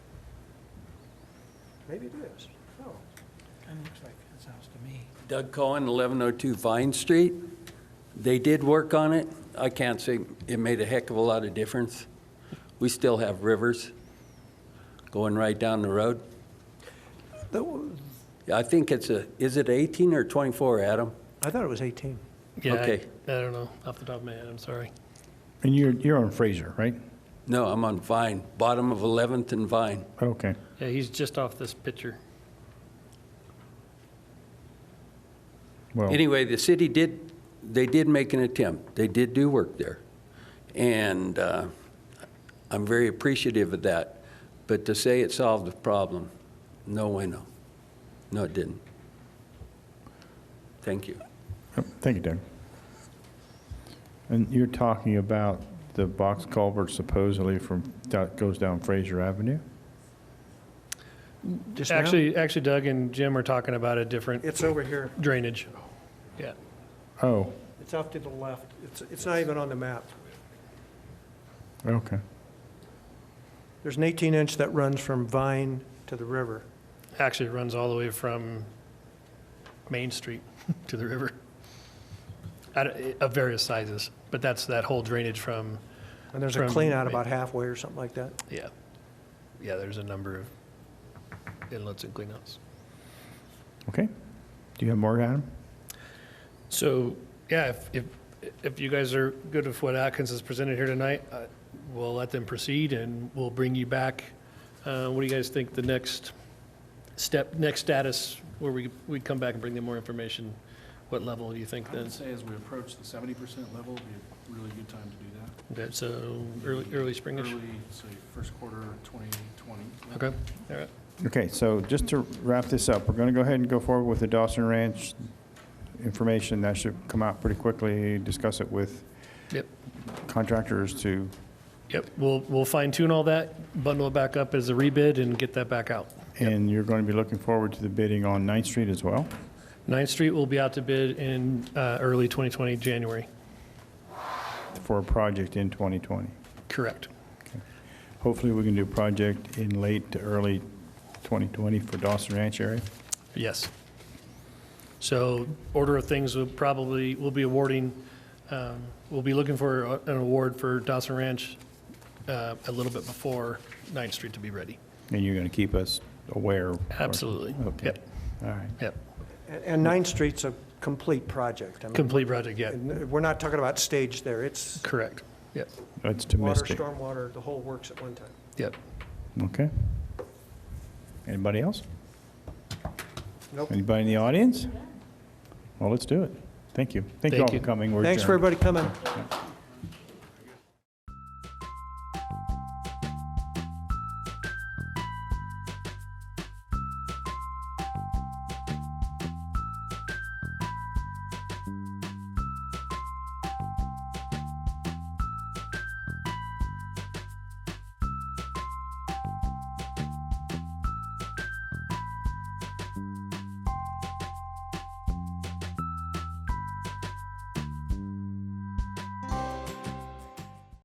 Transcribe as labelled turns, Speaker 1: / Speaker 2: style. Speaker 1: Maybe it is. Oh,
Speaker 2: Kind of looks like his house to me.
Speaker 3: Doug Cohen, 1102 Vine Street. They did work on it. I can't say it made a heck of a lot of difference. We still have rivers going right down the road.
Speaker 1: That-
Speaker 3: I think it's a, is it 18 or 24, Adam?
Speaker 1: I thought it was 18.
Speaker 4: Yeah, I-
Speaker 3: Okay.
Speaker 4: I don't know, off the top of my head, I'm sorry.
Speaker 5: And you're, you're on Fraser, right?
Speaker 3: No, I'm on Vine, bottom of 11th and Vine.
Speaker 5: Okay.
Speaker 4: Yeah, he's just off this picture.
Speaker 5: Well,
Speaker 3: Anyway, the city did, they did make an attempt. They did do work there. And uh, I'm very appreciative of that. But to say it solved the problem, no way, no. No, it didn't. Thank you.
Speaker 5: thank you, Doug. And you're talking about the box culvert supposedly from, that goes down Fraser Avenue?
Speaker 1: Just now?
Speaker 4: Actually, actually Doug and Jim are talking about a different
Speaker 1: It's over here.
Speaker 4: drainage. Yeah,
Speaker 5: Oh,
Speaker 1: It's off to the left. It's, it's not even on the map.
Speaker 5: okay.
Speaker 1: There's an 18-inch that runs from Vine to the river.
Speaker 4: actually it runs all the way from Main Street to the river. I don't- eh, Of various sizes, but that's that whole drainage from,
Speaker 1: And there's a
Speaker 4: From-
Speaker 1: cleanout about halfway or something like that.
Speaker 4: yeah. Yeah, there's a number of inlets and cleanouts.
Speaker 5: Okay. Do you have more, Adam?
Speaker 4: So, yeah, if, if, if you guys are good with what Atkins has presented here tonight, uh, we'll let them proceed and we'll bring you back. Uh, What do you guys think the next step, next status, where we, we'd come back and bring them more information? What level do you think
Speaker 6: I would
Speaker 4: that's,
Speaker 6: say as we approach the seventy percent level, it'd be a really good time to do that.
Speaker 4: that's uh, early, early springish?
Speaker 6: Early, say, first quarter twenty twenty.
Speaker 4: Okay, all right.
Speaker 5: Okay, so just to wrap this up, we're going to go ahead and go forward with the Dawson Ranch information. That should come out pretty quickly, discuss it with
Speaker 4: Yep.
Speaker 5: contractors to,
Speaker 4: Yep, we'll, we'll fine tune all that, bundle it back up as a rebid and get that back out.
Speaker 5: and you're going to be looking forward to the bidding on Ninth Street as well?
Speaker 4: Ninth Street will be out to bid in uh, early 2020, January.
Speaker 5: for a project in 2020.
Speaker 4: Correct.
Speaker 5: Hopefully, we can do a project in late to early 2020 for Dawson Ranch area.
Speaker 4: Yes. So order of things will probably, we'll be awarding, um, we'll be looking for a- an award for Dawson Ranch uh, a little bit before Ninth Street to be ready.
Speaker 5: And you're going to keep us aware. of-
Speaker 4: Absolutely.
Speaker 5: Okay.
Speaker 4: Yep,
Speaker 5: All right.
Speaker 4: yep.
Speaker 1: And- And Ninth Street's a complete project. I mean,
Speaker 4: Complete project, yeah.
Speaker 1: and We're not talking about stage there. It's
Speaker 4: Correct. Yep,
Speaker 5: That's
Speaker 1: water,
Speaker 5: optimistic.
Speaker 1: stormwater, the whole works at one time.
Speaker 4: yep.
Speaker 5: Okay. Anybody else?
Speaker 1: Nope.
Speaker 5: Anybody in the audience? Well, let's do it. Thank you. Thank you
Speaker 4: Thank
Speaker 5: all for
Speaker 4: you.
Speaker 5: coming. We're
Speaker 1: Thanks for
Speaker 5: adjourned.
Speaker 1: everybody coming.